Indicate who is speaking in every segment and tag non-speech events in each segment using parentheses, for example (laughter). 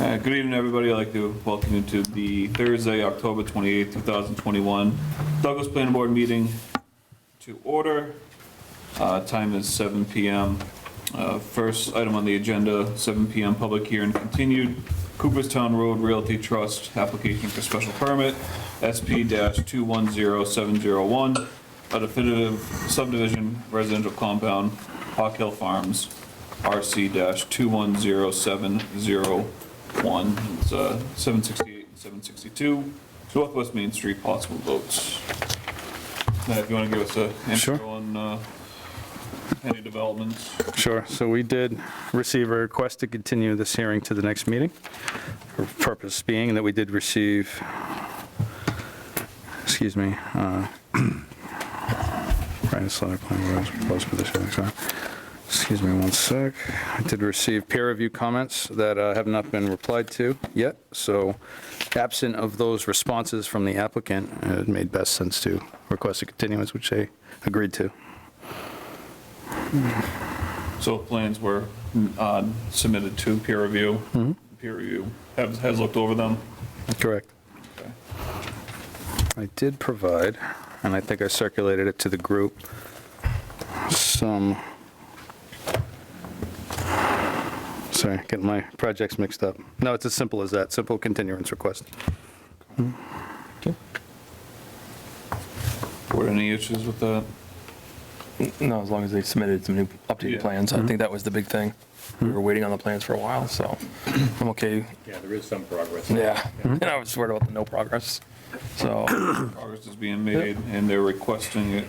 Speaker 1: Uh, Good evening, everybody. I'd like to welcome you to the Thursday, October 28th, 2021 Douglas Planning Board meeting to order. Uh, Time is 7 PM. Uh, First item on the agenda, 7 PM, public hearing continued. Cooperstown Road Realty Trust, application for special permit, SP-210701, a definitive subdivision residential compound, Hawk Hill Farms, RC-210701. It's uh, 768 and 762, Northwest Main Street, possible votes. Now, if you want to give us a
Speaker 2: Sure.
Speaker 1: intro on uh, any developments?
Speaker 2: Sure. So we did receive a request to continue this hearing to the next meeting. Purpose being that we did receive, excuse me, uh, (clears throat) right, it's not a plan, where it's proposed for this hearing, sorry. Excuse me one sec. I did receive peer review comments that uh, have not been replied to yet. So absent of those responses from the applicant, it made best sense to request a continuance, which they agreed to.
Speaker 1: So plans were uh, submitted to peer review.
Speaker 3: Mm-hmm.
Speaker 1: Peer review has has looked over them.
Speaker 2: Correct.
Speaker 1: Okay.
Speaker 2: I did provide, and I think I circulated it to the group, some, sorry, getting my projects mixed up. No, it's as simple as that, simple continuance request.
Speaker 1: Were there any issues with that?
Speaker 3: No, as long as they submitted some new
Speaker 1: Yeah.
Speaker 3: updated plans, I think that was the big thing. We were waiting on the plans for a while, so I'm okay.
Speaker 4: Yeah, there is some progress.
Speaker 3: Yeah, (laughs) and I was worried about the no progress, so,
Speaker 1: Progress is being made, and they're requesting it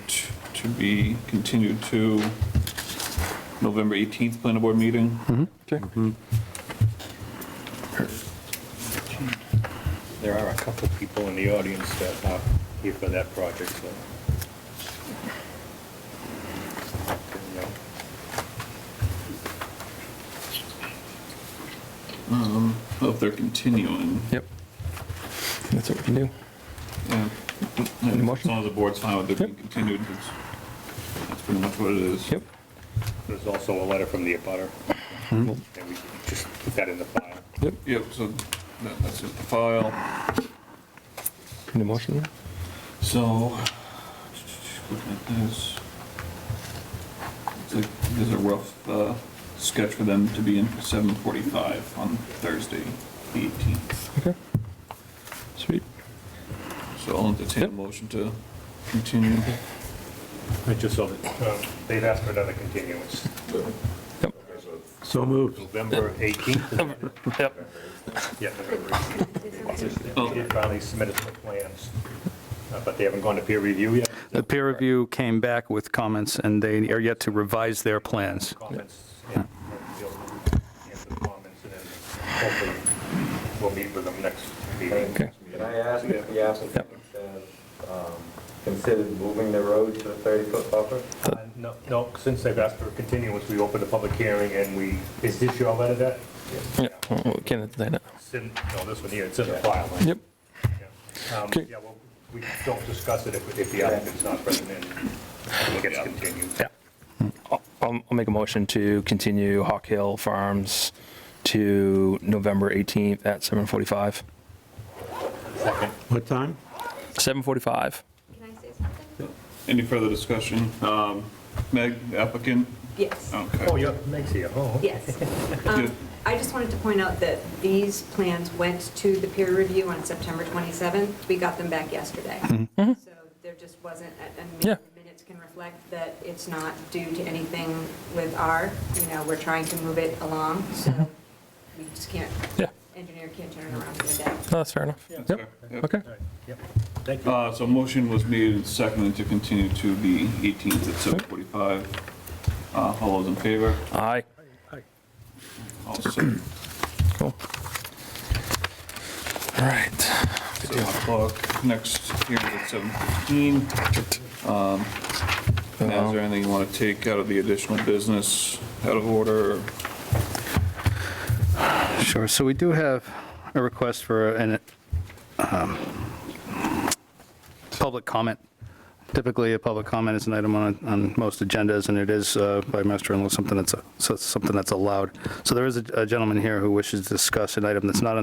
Speaker 1: to be continued to November 18th planning board meeting.
Speaker 3: okay.
Speaker 4: There are a couple people in the audience that are here for that project, so.
Speaker 1: Well, If they're continuing.
Speaker 3: Yep. That's what we can do.
Speaker 1: yeah.
Speaker 3: Any
Speaker 1: As
Speaker 3: motion?
Speaker 1: long as the board's fine with it being
Speaker 3: Yep.
Speaker 1: continued, it's- that's pretty much what it is.
Speaker 3: Yep,
Speaker 4: There's also a letter from the abutter, and we just put that in the file.
Speaker 3: yep.
Speaker 1: Yep, so that- that's it, the file.
Speaker 3: Any motion?
Speaker 1: So, looking at this, it's like, there's a rough uh, sketch for them to be in for 7:45 on Thursday, the 18th.
Speaker 3: Okay. Sweet.
Speaker 1: So I'll entertain a
Speaker 3: Yep.
Speaker 1: motion to continue.
Speaker 4: I just saw that. Um, They've asked for another continuance.
Speaker 3: Yep.
Speaker 4: So moved. November 18th.
Speaker 3: Yep,
Speaker 4: Yeah. November 18th.
Speaker 1: Oh.
Speaker 4: They finally submitted some plans, uh, but they haven't gone to peer review yet.
Speaker 2: The peer review came back with comments, and they are yet to revise their plans.
Speaker 4: comments and they'll answer the comments and then hopefully we'll meet with them next meeting.
Speaker 3: Okay.
Speaker 5: Can I ask if the applicant has um, considered moving the road to the 30-foot buffer?
Speaker 4: Uh, No, no, since they've asked for a continuance, we opened a public hearing and we, is this your letter that?
Speaker 3: yeah, well, we can't deny that.
Speaker 4: It's in- No, this one here, it's in the file. right?
Speaker 3: Yep,
Speaker 4: Yeah. Um,
Speaker 3: Okay.
Speaker 4: Yeah, well, we don't discuss it if if the applicant's not present and it gets continued.
Speaker 3: yeah. I'll, I'll I'll make a motion to continue Hawk Hill Farms to November 18th at 7:45.
Speaker 6: What time?
Speaker 3: 7:45.
Speaker 7: Can I say something?
Speaker 1: Any further discussion? Um, Meg, applicant?
Speaker 7: Yes,
Speaker 4: Oh,
Speaker 1: Okay.
Speaker 4: yeah, Meg's here, oh.
Speaker 7: yes. Um, I just wanted to point out that these plans went to the peer review on September 27th. We got them back yesterday. So there just wasn't, and
Speaker 3: Yeah.
Speaker 7: minutes can reflect that it's not due to anything with our, you know, we're trying to move it along, so we just can't,
Speaker 3: Yeah,
Speaker 7: engineer can't turn it around in a day.
Speaker 3: no, that's fair enough.
Speaker 1: That's
Speaker 3: Yep,
Speaker 1: fair. Yep.
Speaker 3: okay.
Speaker 4: All right, Yep, thank you.
Speaker 1: Uh, So motion was made and seconded to continue to the 18th at 7:45. Uh, All those in favor?
Speaker 3: Aye.
Speaker 1: All set.
Speaker 3: Cool. All right.
Speaker 1: Seven o'clock, next hearing at seven fifteen. Now, is there anything you want to take out of the additional business, out of order? or-
Speaker 2: Sure, so we do have a request for an, um, public comment Typically, a public comment is an item on, on most agendas, and it is uh, by master and law something that's, a- so- something that's allowed. So there is a a gentleman here who wishes to discuss an item that's not on